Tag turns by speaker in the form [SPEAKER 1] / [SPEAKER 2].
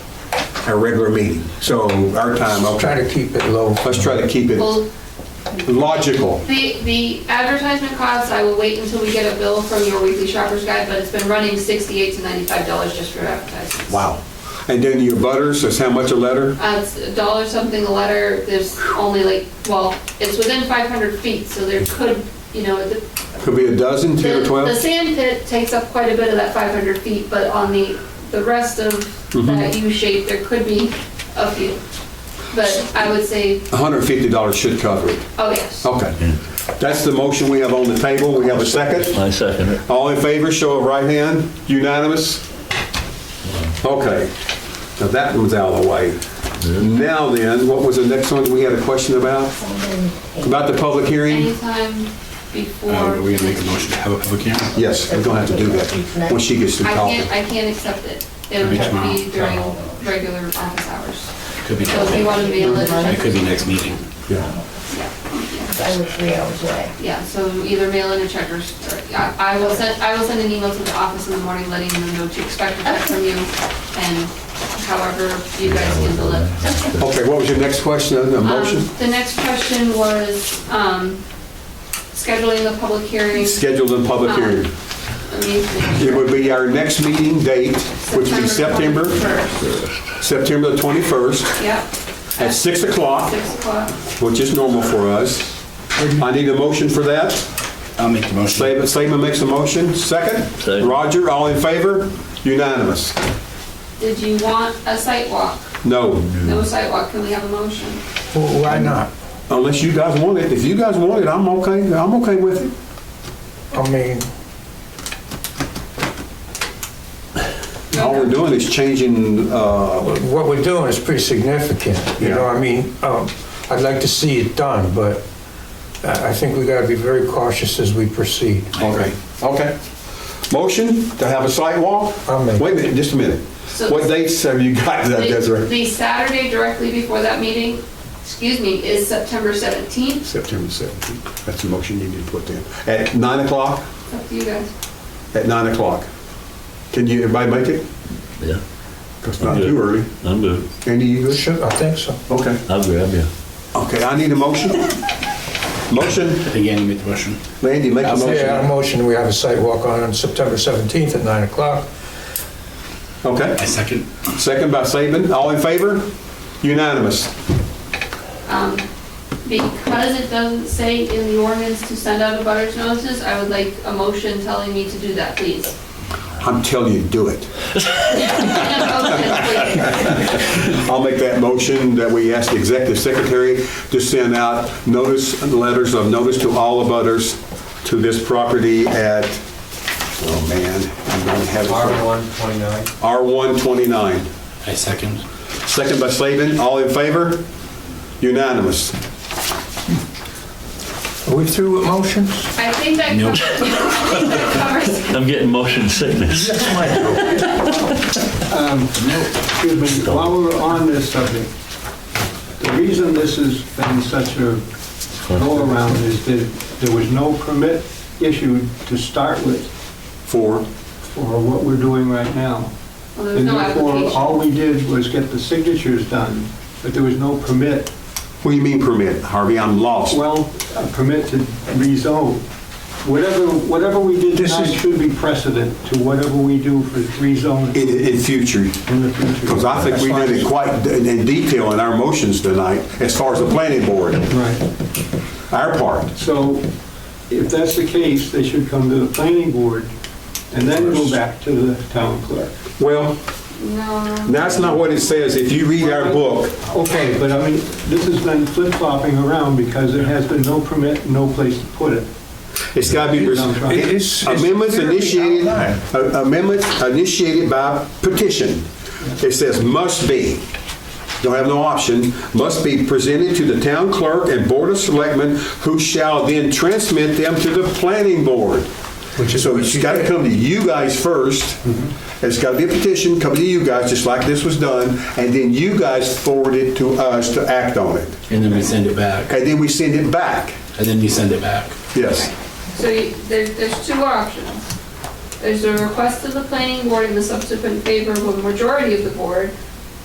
[SPEAKER 1] our regular meeting. So our time,
[SPEAKER 2] I'll
[SPEAKER 1] okay,
[SPEAKER 2] try to keep it low.
[SPEAKER 1] let's try to keep it
[SPEAKER 3] Well,
[SPEAKER 1] logical.
[SPEAKER 3] the, the advertisement costs, I will wait until we get a bill from your weekly shopper's guide, but it's been running sixty-eight to ninety-five dollars just for advertisements.
[SPEAKER 1] Wow. And then your butters, is how much a letter?
[SPEAKER 3] Uh, it's a dollar something a letter, there's only like, well, it's within five hundred feet, so there could, you know, the,
[SPEAKER 1] Could be a dozen, 10
[SPEAKER 3] The
[SPEAKER 1] or
[SPEAKER 3] the
[SPEAKER 1] 12?
[SPEAKER 3] sand pit takes up quite a bit of that 500 feet, but on the, the rest of
[SPEAKER 4] Mm-hmm.
[SPEAKER 3] that U shape, there could be a few. But I would say,
[SPEAKER 1] $150 should cover it.
[SPEAKER 3] oh yes.
[SPEAKER 1] Okay. That's the motion we have on the table. We have a second.
[SPEAKER 5] I second it.
[SPEAKER 1] All in favor, show of right hand. Unanimous? Okay. Now that one's out of the way. Now then, what was the next one we had a question about? About the public hearing?
[SPEAKER 3] Anytime before.
[SPEAKER 4] Uh, Are we gonna make a motion to have a public hearing?
[SPEAKER 1] Yes, we're gonna have to do that when she gets to
[SPEAKER 3] I
[SPEAKER 1] talking.
[SPEAKER 3] can't, I can't accept it. It would
[SPEAKER 4] Maybe
[SPEAKER 3] have to be during
[SPEAKER 4] tomorrow.
[SPEAKER 3] regular office hours.
[SPEAKER 4] Could be,
[SPEAKER 3] So if you want to be a
[SPEAKER 4] it
[SPEAKER 3] little,
[SPEAKER 4] could be next meeting.
[SPEAKER 1] Yeah.
[SPEAKER 6] I was three hours away.
[SPEAKER 3] yeah, so either mail in a check or, or- I I will send, I will send an email to the office in the morning letting them know to expect a check from you and however you guys handle it.
[SPEAKER 1] Okay, what was your next question, a a motion?
[SPEAKER 3] Um, The next question was um, scheduling the public hearing.
[SPEAKER 1] Scheduled in public hearing.
[SPEAKER 3] Let me see.
[SPEAKER 1] It would be our next meeting date, which would be September,
[SPEAKER 3] 21st.
[SPEAKER 1] September the 21st
[SPEAKER 3] Yep.
[SPEAKER 1] at 6 o'clock,
[SPEAKER 3] 6 o'clock.
[SPEAKER 1] which is normal for us. I need a motion for that.
[SPEAKER 4] I'll make the motion.
[SPEAKER 1] Slavin Slavin makes a motion, second.
[SPEAKER 5] Second.
[SPEAKER 1] Roger, all in favor? Unanimous.
[SPEAKER 3] Did you want a site walk?
[SPEAKER 1] No,
[SPEAKER 3] No site walk. can we have a motion?
[SPEAKER 2] Well, Why not?
[SPEAKER 1] unless you guys want it. If you guys want it, I'm okay, I'm okay with it.
[SPEAKER 2] I mean,
[SPEAKER 1] All we're doing is changing, uh,
[SPEAKER 2] what we're doing is pretty significant, you know, I mean, um, I'd like to see it done, but I I think we gotta be very cautious as we proceed.
[SPEAKER 1] okay, okay. Motion to have a site walk?
[SPEAKER 2] I'll make it.
[SPEAKER 1] Wait a minute, just a minute.
[SPEAKER 3] So-
[SPEAKER 1] What dates have you got,
[SPEAKER 3] The-
[SPEAKER 1] Desiree?
[SPEAKER 3] The Saturday directly before that meeting, excuse me, is September 17th.
[SPEAKER 1] September 17th. That's the motion you need to put in. At 9 o'clock?
[SPEAKER 3] It's up to you guys.
[SPEAKER 1] At 9 o'clock. Can you, everybody make it?
[SPEAKER 5] Yeah,
[SPEAKER 1] Because it's not too early.
[SPEAKER 5] I'm good.
[SPEAKER 1] Andy, you good?
[SPEAKER 2] Should, I think so.
[SPEAKER 1] Okay.
[SPEAKER 5] I'll grab you.
[SPEAKER 1] Okay, I need a motion. Motion.
[SPEAKER 4] Again, you make the motion.
[SPEAKER 1] Landy, make a
[SPEAKER 2] Yeah,
[SPEAKER 1] motion.
[SPEAKER 2] a motion, we have a site walk on on September 17th at 9 o'clock.
[SPEAKER 4] I
[SPEAKER 1] Okay,
[SPEAKER 4] second.
[SPEAKER 1] second by Saban, all in favor? Unanimous.
[SPEAKER 3] Um, Because it doesn't say in the ordinance to send out a butters notices, I would like a motion telling me to do that, please.
[SPEAKER 1] I'm telling you, do it.
[SPEAKER 3] Okay, please.
[SPEAKER 1] I'll make that motion that we ask the executive secretary to send out notice, letters of notice to all abutters to this property at, oh man, I'm gonna have it.
[SPEAKER 2] R129.
[SPEAKER 1] R129.
[SPEAKER 4] I second.
[SPEAKER 1] Second by Saban, all in favor? Unanimous.
[SPEAKER 2] Are we through with motions?
[SPEAKER 3] I think that
[SPEAKER 4] Nope.
[SPEAKER 3] covers, I think that covers
[SPEAKER 5] I'm getting motion sickness.
[SPEAKER 7] Excuse me, while we're on this subject, the reason this has been such a go-around is that there was no permit issued to start with
[SPEAKER 1] Four.
[SPEAKER 7] for what we're doing right now.
[SPEAKER 3] Well, there's
[SPEAKER 7] And
[SPEAKER 3] no
[SPEAKER 7] therefore, all
[SPEAKER 3] application.
[SPEAKER 7] we did was get the signatures done, but there was no permit,
[SPEAKER 1] What do you mean permit, Harvey? I'm lost.
[SPEAKER 7] well, a permit to rezone. Whatever, whatever we did
[SPEAKER 2] This
[SPEAKER 7] tonight
[SPEAKER 2] is-
[SPEAKER 7] should be precedent to whatever we do for rezoning
[SPEAKER 1] In, in future,
[SPEAKER 7] in the future.
[SPEAKER 1] Because I think we
[SPEAKER 7] That's
[SPEAKER 1] did it
[SPEAKER 7] fine.
[SPEAKER 1] quite in in detail in our motions tonight, as far as the planning board,
[SPEAKER 7] Right.
[SPEAKER 1] our part.
[SPEAKER 7] So if that's the case, they should come to the planning board and then go back to the town clerk.
[SPEAKER 1] Well,
[SPEAKER 3] No,
[SPEAKER 1] that's not what it says. If you read our book,
[SPEAKER 7] Okay, but I mean, this has been flip-flopping around because there has been no permit, no place to put it.
[SPEAKER 1] it's got to be,
[SPEAKER 2] It is- it's
[SPEAKER 1] amendments
[SPEAKER 2] clearly
[SPEAKER 1] initiated,
[SPEAKER 2] outlined.
[SPEAKER 1] amendments initiated by petition. It says must be, don't have no option, must be presented to the town clerk and board of selectmen, who shall then transmit them to the planning board.
[SPEAKER 2] Which is
[SPEAKER 1] So
[SPEAKER 2] what
[SPEAKER 1] it's
[SPEAKER 2] you
[SPEAKER 1] got to
[SPEAKER 2] did. Mm-hmm.
[SPEAKER 1] come to you guys first. It's got to be a petition coming to you guys, just like this was done, and then you guys forward it to us to act on it.
[SPEAKER 4] And then we send it back.
[SPEAKER 1] And then we send it back.
[SPEAKER 4] And then you send it back.
[SPEAKER 1] Yes.
[SPEAKER 3] so you- there, there's two options. There's a request of the planning board and the subsequent favorable majority of the board,